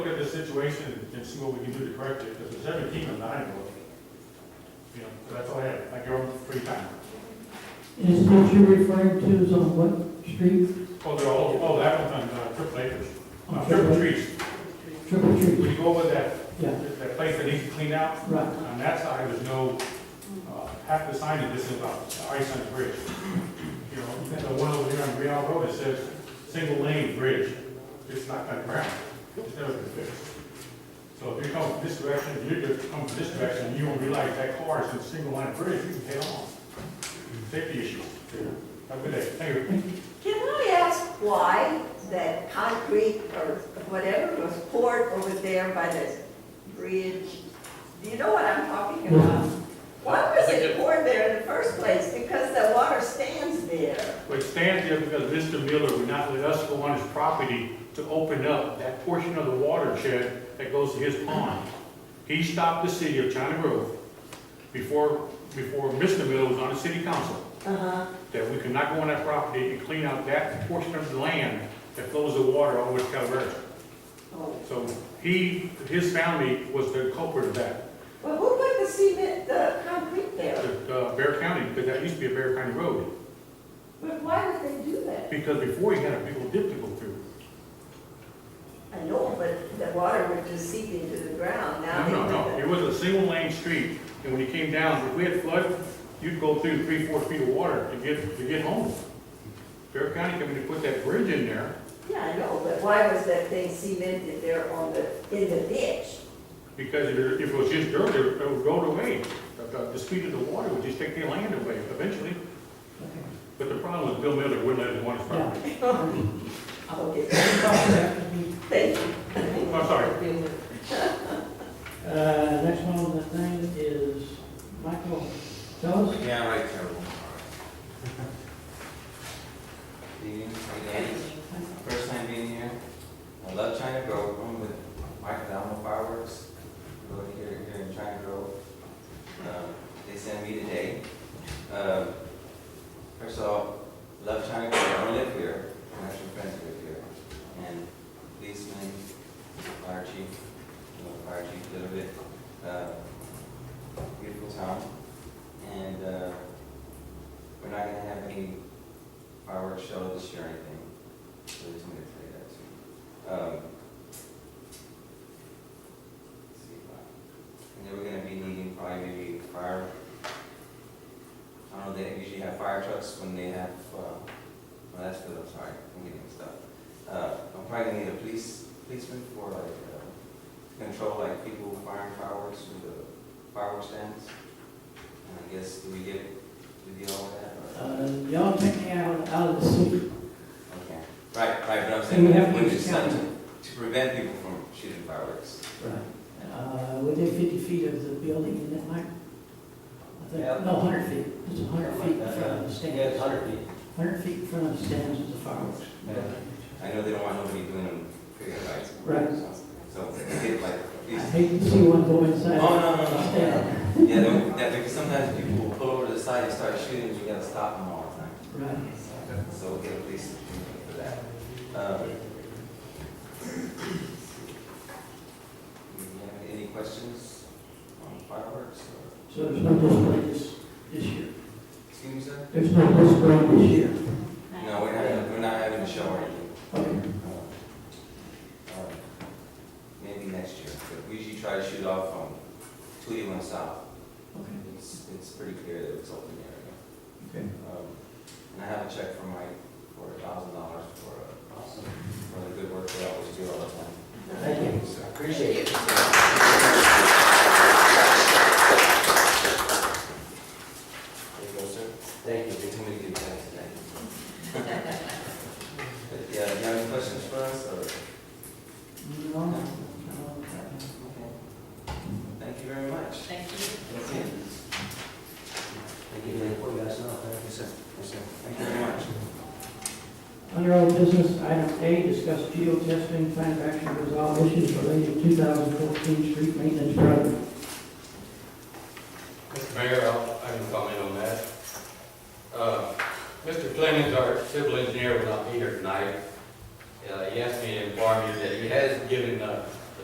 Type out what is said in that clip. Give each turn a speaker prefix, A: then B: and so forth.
A: situation and see what we can do to correct it, because it's seventeen and nine, you know, so that's all I have, I give them free time.
B: Is what you're referring to is on what street?
A: Oh, they're all, oh, that one's on uh, Triple Acres,
B: On
A: Uh, Triple Trees,
B: Triple Tree,
A: we go over that,
B: yeah,
A: that place that needs to clean out,
B: right.
A: on that side, there's no, uh, half the signage is about ice on the bridge. You know, and the one over here on Real Road, it says, single lane bridge, it's not that ground, it's never been fixed. So if you come from this direction, you just come from this direction, you won't realize that car is in a single line bridge, you can head on. Safety issue, have a good day, thank you.
C: Can I ask why that concrete or whatever was poured over there by the bridge? Do you know what I'm talking about? Why was it poured there in the first place? Because the water stands there.
A: But stand there because Mr. Miller would not let us go on his property to open up that portion of the watershed that goes to his pond. He stopped the city of China Grove before, before Mr. Miller was on the city council,
C: Uh-huh.
A: that we could not go on that property and clean out that portion of the land that flows the water over to Calvert.
C: Oh.
A: So he, his family was the culprit of that,
C: Well, who put the cement, the concrete there?
A: uh, Bear County, because that used to be a Bear County road.
C: But why would they do that?
A: Because before he had a big old dip to go through.
C: I know, but the water would just seep into the ground
A: No,
C: now. they
A: no,
C: did
A: no,
C: that.
A: it was a single lane street, and when you came down, if we had flood, you'd go through three, four feet of water to get, to get home. Bear County coming to put that bridge in there
C: Yeah, I know, but why was that thing cemented there on the, in the ditch?
A: because if it- if it was just dirt, it would- it would go away. The- The, the speed of the water would just take the land away eventually,
B: Okay.
A: but the problem is Bill Miller wouldn't let him on his property.
D: Oh,
C: Okay,
B: Uh,
C: thank you.
A: I'm sorry,
B: Uh, next one on the thing is Michael Ellis.
D: Yeah, right, terrible. Evening, again, first time being here. I love China Grove, I'm with Mike Dalma Fireworks, go here, here in China Grove. Um, They sent me today. Um, First of all, love China Grove, I don't live here, I'm actually friends live here. And policeman, fire chief, you know, fire chief a little bit. Uh, Beautiful town. And uh, we're not gonna have any fireworks show this year or anything, so I just wanted to tell you that too. Um, let's see, uh, And then we're gonna be needing probably maybe fire, I don't know, they usually have fire trucks when they have, uh, well, that's good, I'm sorry, I'm getting stuff. Uh, I'm probably gonna need a police, policeman for like, uh, control like people firing fireworks through the fireworks stands. And I guess, do we get, do we deal with that? or-
B: Uh, y'all take me out, out of the city.
D: Okay, right, right, but I'm
B: And
D: saying,
B: we have
D: when
B: to
D: it's done
B: discount
D: to, to prevent people from shooting fireworks.
B: Uh, within fifty feet of the building, isn't that Mike? I think, no, hundred feet, it's a hundred feet in front of the
D: Yeah,
B: stands.
D: hundred feet.
B: Hundred feet in front of the stands is the fireworks.
D: I know they don't want nobody doing them, figure lights.
B: Right.
D: So, get like,
B: I
D: please.
B: hate to see one go inside.
D: Oh, no, no, no,
B: Stand.
D: no. Yeah, they- that, because sometimes people will pull over to the side and start shooting, you gotta stop them all the time.
B: Right.
D: So we'll get a police for that. Um, do you have Any questions on fireworks? or-
B: So there's no display this, this year.
D: Excuse me, sir?
B: There's no display this year.
D: No, we're not, we're not having a show or anything.
B: Okay.
D: Uh, Maybe next year, but we usually try to shoot off on Tweedy South.
B: Okay.
D: It's, it's pretty clear that it's open area.
B: Okay.
D: Um, And I have a check from Mike for a thousand dollars for, uh, for the good work they always do all the time.
B: Thank you.
D: So, Appreciate it. There you go, sir. Thank you. They told me to give that today. But, Yeah, do you have any questions for us, or?
B: Moving on. Uh,
D: Thank you very much.
E: Thank you.
D: That's it. Thank you, Mayor, for that, thank you, sir. Yes, sir. Thank you very much.
B: Under old business, item A, discuss geotesting, plan of action, resolve issues related to 2014 street maintenance project.
F: Mr. Mayor, I'll- I can comment on that. Uh, Mr. Clemens, our civil engineer, will not be here tonight. Uh, He asked me to inform you that he has given uh,